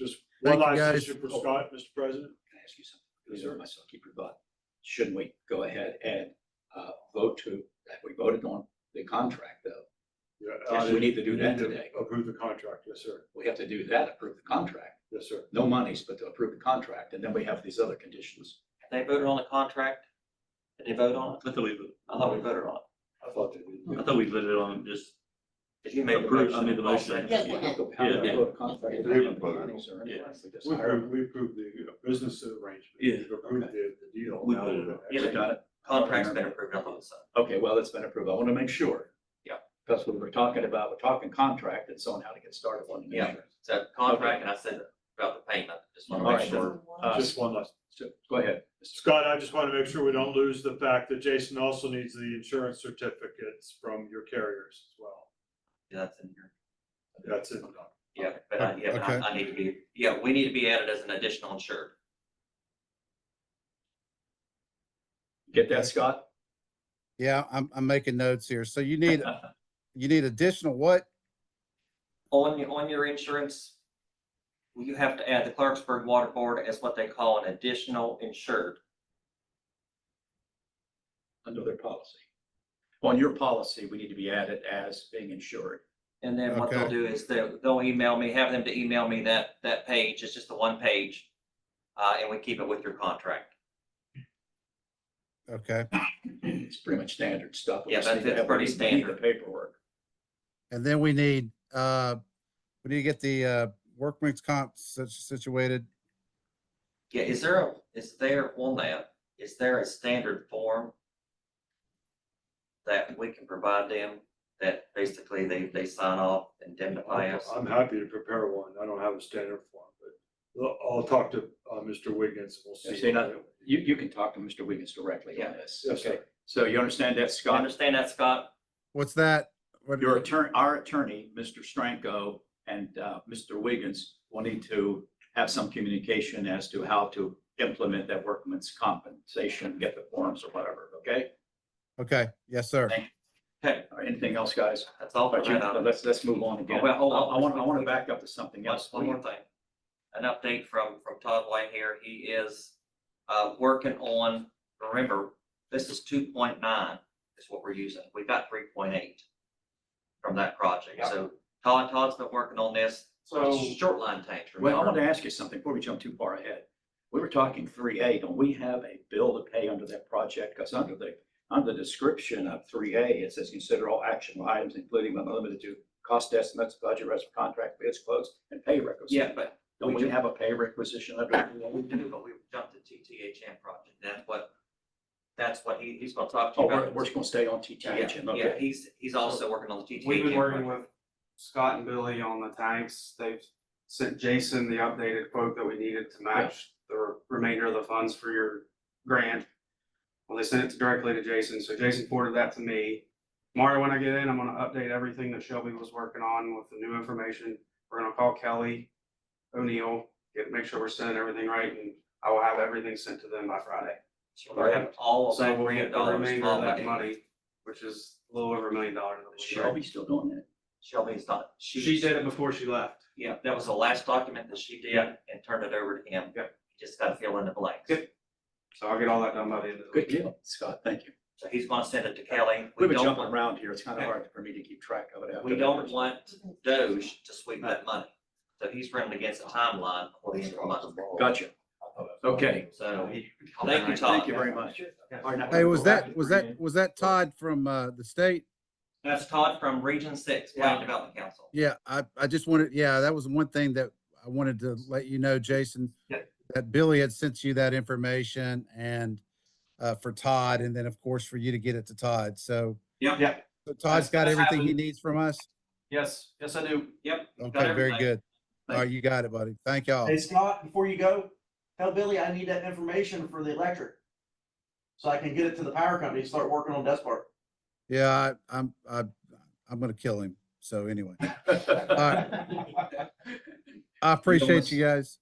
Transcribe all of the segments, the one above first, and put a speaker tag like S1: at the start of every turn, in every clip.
S1: One
S2: Thank you,
S1: last
S2: guys.
S1: issue for Scott, Mr. President.
S3: Can I ask you something? Reserve myself, keep your thought. Shouldn't we go ahead and uh, vote to, have we voted on the contract though?
S1: Yeah,
S3: Yes,
S1: uh,
S3: we need to do
S1: you
S3: that
S1: need to
S3: today.
S1: Approve the contract, yes, sir,
S3: We have to do that, approve the contract.
S1: yes, sir.
S3: No monies, but to approve the contract. And then we have these other conditions.
S4: They voted on the contract? Did they vote on it?
S5: I thought we,
S4: I thought we voted on it.
S1: I thought they did.
S5: I thought we voted on just,
S4: Did you make the
S5: Approved,
S4: motion?
S5: I made the
S4: I'll second.
S5: motion.
S3: How do we vote a contract if we don't have the monies or anything? We just
S1: We
S3: hire
S1: approved,
S3: them.
S1: we approved the uh, business arrangement.
S5: Yeah.
S1: We approved the, the deal.
S5: We
S1: Now
S5: voted
S1: we're gonna
S5: on
S4: Yeah,
S3: We
S1: actually-
S3: got it.
S4: Contract's been approved, I thought so.
S3: Okay, well, it's been approved. I want to make sure.
S4: Yeah.
S3: That's what we're talking about. We're talking contract and so on, how to get started on the
S4: Yeah.
S3: contract.
S4: So contract, and I said about the payment, just want to
S3: Alright.
S4: make sure.
S3: Uh,
S1: Just one last,
S3: so Go ahead. Mr.
S1: Scott, I just want to make sure we don't lose the fact that Jason also needs the insurance certificates from your carriers as well.
S4: Yeah, That's in here.
S1: That's it.
S4: Yeah, but I, yeah, but I,
S2: Okay.
S4: I need to be, yeah, we need to be added as an additional insured.
S3: Get that, Scott?
S2: Yeah, I'm, I'm making notes here. So you need, you need additional what?
S4: On, your- on your insurance, you have to add the Clarksburg Water Board as what they call an additional insured.
S3: under their policy. On your policy, we need to be added as being insured.
S4: And then what they'll
S2: Okay.
S4: do is they'll, they'll email me, have them to email me that, that page. It's just the one page. Uh, and we keep it with your contract.
S2: Okay.
S3: It's pretty much standard stuff. We
S4: Yeah,
S3: just
S4: that's-
S3: need to
S4: that's
S3: have- we
S4: pretty
S3: need- we need the
S4: standard.
S3: Paperwork.
S2: And then we need, uh, we need to get the, uh, workman's comp sit- situated.
S4: Yeah, is there a, is there on that, is there a standard form that we can provide them that basically they, they sign off and indemnify us?
S1: I'm happy to prepare one. I don't have a standard form, but I'll- I'll talk to, uh, Mr. Wiggins. We'll see.
S3: Yes, they not- You, you can talk to Mr. Wiggins directly on
S4: Yeah.
S3: this.
S1: Yes, sir.
S3: Okay, so you understand that,
S4: Do you
S3: Scott?
S4: understand that, Scott?
S2: What's that? What-
S3: Your attorney, our attorney, Mr. Stranko and uh, Mr. Wiggins will need to have some communication as to how to implement that workman's compensation, get the forms or whatever, okay?
S2: Okay. Yes, sir.
S4: Okay,
S3: All right, Anything else, guys?
S4: that's all for
S3: But you-
S4: that. item.
S3: Let's, let's move on again.
S4: Oh, well, hold on.
S3: I want, I want to back up to something
S4: One,
S3: else.
S4: one more thing. An update from, from Todd White here. He is, uh, working on, remember, this is two point nine is what we're using. We got three point eight from that project.
S3: Yeah.
S4: So Todd, Todd's been working on this.
S1: So-
S4: Short line tanks,
S3: Well, I want
S4: remember?
S3: to ask you something before we jump too far ahead. We were talking three A, don't we have a bill to pay under that project? Because under the, under the description of three A, it says consider all action items, including but not limited to cost estimates, budget, rest of contract, bids, quotes, and pay requisition.
S4: Yeah, but
S3: Don't we have a pay requisition under?
S4: we do, but we jumped to TTHM project. That's what, that's what he, he's gonna talk to
S3: Oh,
S4: you
S3: we're,
S4: about.
S3: we're just going to stay on TTHM,
S4: Yeah, yeah,
S3: okay?
S4: he's, he's also working on the TTHM.
S6: We've been working
S4: project.
S6: with Scott and Billy on the tanks. They've sent Jason the updated quote that we needed to match the re- remainder of the funds for your grant. Well, they sent it directly to Jason, so Jason forwarded that to me. Tomorrow, when I get in, I'm gonna update everything that Shelby was working on with the new information. We're gonna call Kelly O'Neill, get, make sure we're sending everything right, and I will have everything sent to them by Friday.
S4: So we're having all of
S6: So
S4: that
S6: we'll
S4: grant
S6: get the
S4: dollars.
S6: remainder of
S4: all
S6: that
S4: back.
S6: money, which is a little over a million dollars.
S3: Shelby's still doing that.
S4: Shelby's not, she.
S6: She did it before she left.
S4: Yeah, that was the last document that she did and turned it over to him.
S6: Yep.
S4: He Just gotta fill in the blanks.
S6: Yep. So I'll get all that done by the end of the
S3: Good
S6: week.
S3: deal, Scott, thank you.
S4: So he's gonna send it to Kelly.
S3: We've
S4: We
S3: been
S4: don't
S3: jumping
S4: want,
S3: around here. It's kind of hard for me to keep track of it. after
S4: we
S3: the
S4: don't
S3: first-
S4: want Doge to sweep that money. So he's running against a timeline for the end of the month.
S3: Gotcha. Okay.
S4: So, thank you,
S3: Thank you
S4: Todd.
S3: very much. All right, now-
S2: Hey, was that, was that, was that Todd from, uh, the state?
S4: That's Todd from Region Six, Planning Development Council.
S2: Yeah, I, I just wanted, yeah, that was one thing that I wanted to let you know, Jason,
S6: Yeah.
S2: that Billy had sent you that information and, uh, for Todd, and then of course for you to get it to Todd. So
S6: Yep, yeah,
S2: so Todd's got
S6: That's
S2: everything he
S6: happened.
S2: needs from us?
S6: yes, yes, I do.
S4: Yep. got
S2: Okay, very
S4: everything.
S2: good. All right, you got it, buddy. Thank y'all.
S7: Hey Scott, before you go, tell Billy I need that information for the electric. So I can get it to the power company, and start working on Despard.
S2: Yeah, I, I'm, I, I'm gonna kill him. So anyway, I
S3: must-
S2: appreciate you guys.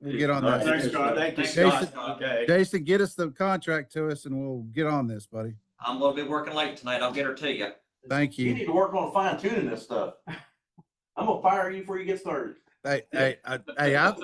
S2: We'll get on
S3: All right.
S2: that.
S1: Thanks, Scott.
S3: Thank you,
S4: Thanks,
S3: Scott.
S4: Scott.
S3: Okay.
S2: Jason, get us the contract to us and we'll get on this, buddy.
S4: I'm gonna be working late tonight. I'll get her to you.
S2: Thank
S7: You
S2: you.
S7: need to work on fine tuning this stuff. I'm gonna fire you before you get started.
S2: Hey, hey, I- hey, I,